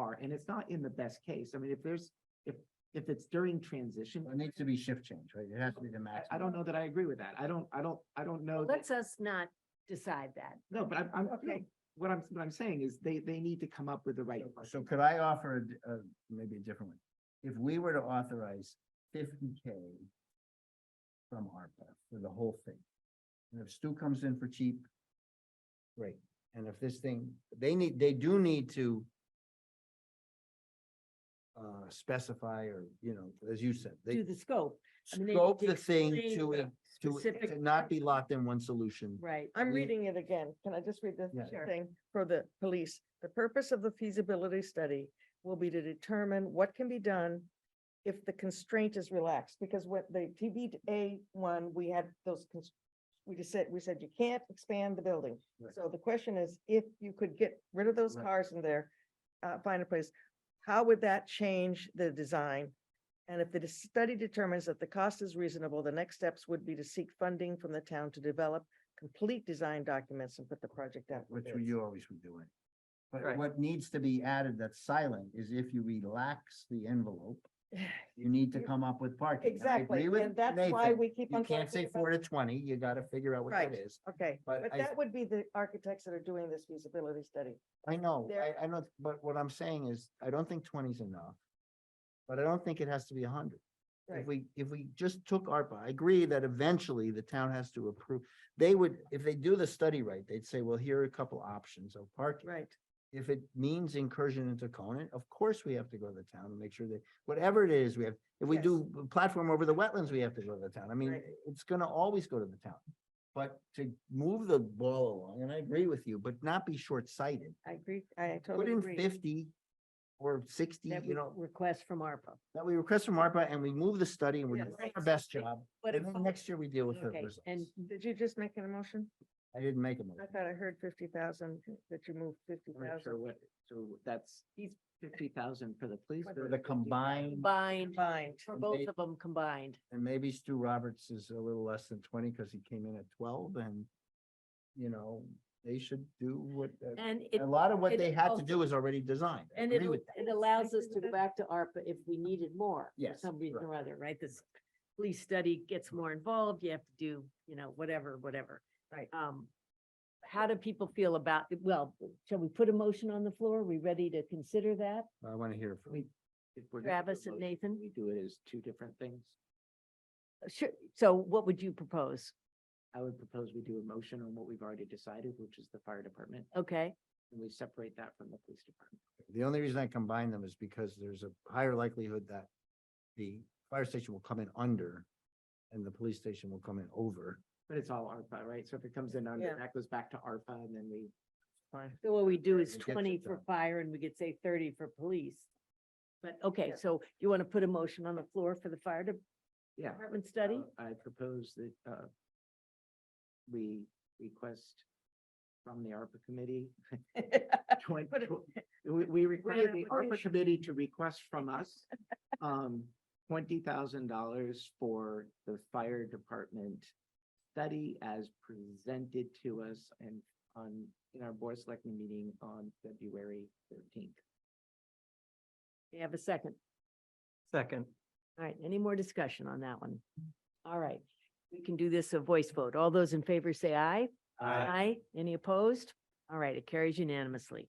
are, and it's not in the best case. I mean, if there's, if, if it's during transition, It needs to be shift change, right? It has to be the I, maximum. I don't know that I agree with that. I don't, I don't, I don't know. that- Let's us not decide that. No, but I'm, I'm, Okay. what I'm, what I'm saying is they, they need to come up with the right. So- So could I offer a, d- a- maybe a different one? If we were to authorize fifty K from ARPA for the whole thing, and if Stu comes in for cheap, great. And if this thing, they need, they do need to uh, specify or, you know, as you said, Do they the scope, I mean, they scope need to the thing explain to, the it- to, it- specific- to not be locked in one solution. right? I'm We- reading it again. Can I just read the Yeah. Sure. thing for the police? The purpose of the feasibility study will be to determine what can be done if the constraint is relaxed, because what the TBA one, we had those cons- we just said, we said you can't expand the building. Right. So the question is, if you could get rid of those Right. cars in there, uh, find a place, how would that change the design? And if the dis- study determines that the cost is reasonable, the next steps would be to seek funding from the town to develop complete design documents and put the project out. for which bids. you always would do it. But Right. what needs to be added that's silent is if you relax the envelope, you need to You- come up with parking. And I Exactly, agree with and that's why Nathan. we keep You on. can't talking say about- four to twenty, you gotta figure out what Right. that is. Okay, but but I- that would be the architects that are doing this feasibility study. I know, There- I, I know, but what I'm saying is, I don't think 20 is enough. But I don't think it has to be a hundred. Right. If we, if we just took ARPA, I agree that eventually the town has to approve. They would, if they do the study right, they'd say, well, here are a couple options of parking. Right. If it means incursion into Conan, of course we have to go to the town and make sure that, whatever it is, we have, if we Yes. do a platform over the wetlands, we have to go to the town. I mean, Right. it's gonna always go to the town. But to move the ball along, and I agree with you, but not be short-sighted. I agree, I Put totally in agree. fifty or sixty, That you we know, request from ARPA. that we request from ARPA and we move the study and we're Yes. doing our best job. But And if- then next year we deal with the Okay, results. and Did you just make an emotion? I didn't make a motion. I thought I heard fifty thousand, that you moved fifty I'm not sure thousand. what, so that's, he's fifty thousand for the police. For or The 50,000? combined, combined, Combined, for and both they- of them combined. and maybe Stu Roberts is a little less than twenty because he came in at twelve and, you know, they should do what, uh, And it, a lot of what it they had to also- do is already designed. I and it, agree with that. it allows us to go back to ARPA if we needed more. for Yes, Some reason right. or other, right? This police study gets more involved, you have to do, you know, whatever, whatever. Right. Um, how do people feel about, well, shall we put a motion on the floor? Are we ready to consider that? I want to hear from We- if we're gonna do a Travis and motion, Nathan? We do it as two different things. Sure, so what would you propose? I would propose we do a motion on what we've already decided, which is the fire department, Okay, and we separate that from the police department. The only reason I combine them is because there's a higher likelihood that the fire station will come in under and the police station will come in over. But it's all ARPA, right? So if it comes in under, Yeah. that goes back to ARPA and then we, fine. so what we do is It gets it twenty for done. fire and we could say thirty for police. But, okay, Yeah. so you want to put a motion on the floor for the fire de- yeah. department study? Uh, I propose that, uh, we request from the ARPA committee. Uh, twen- Put it- tw- We, we require the ARPA application. committee to request from us, um, twenty thousand dollars for the fire department study as presented to us and on, in our board selecting meeting on February thirteenth. You have a second? Second. All right, any more discussion on that one? All right, we can do this a voice vote. All those in favor say aye. Any opposed? All right, it carries unanimously.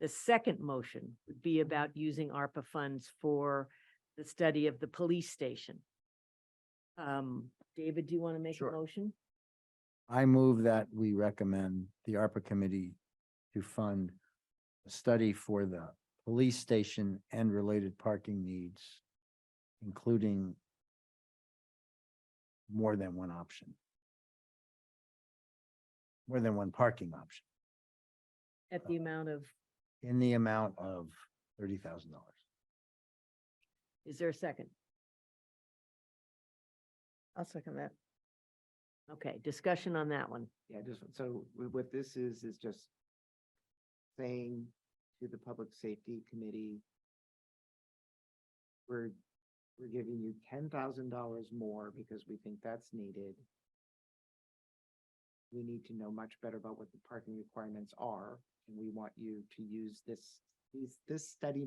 The second motion would be about using ARPA funds for the study of the police station. Um, David, do you want to make a Sure. motion? I move that we recommend the ARPA committee to fund a study for the police station and related parking needs, including more than one option. More than one parking option At the amount of, in the amount of thirty thousand dollars. is there a second? I'll second that. Okay, discussion on that one. Yeah, just, so wh- what this is, is just saying to the Public Safety Committee, we're, we're giving you ten thousand dollars more because we think that's needed. We need to know much better about what the parking requirements are, and we want you to use this, these, this study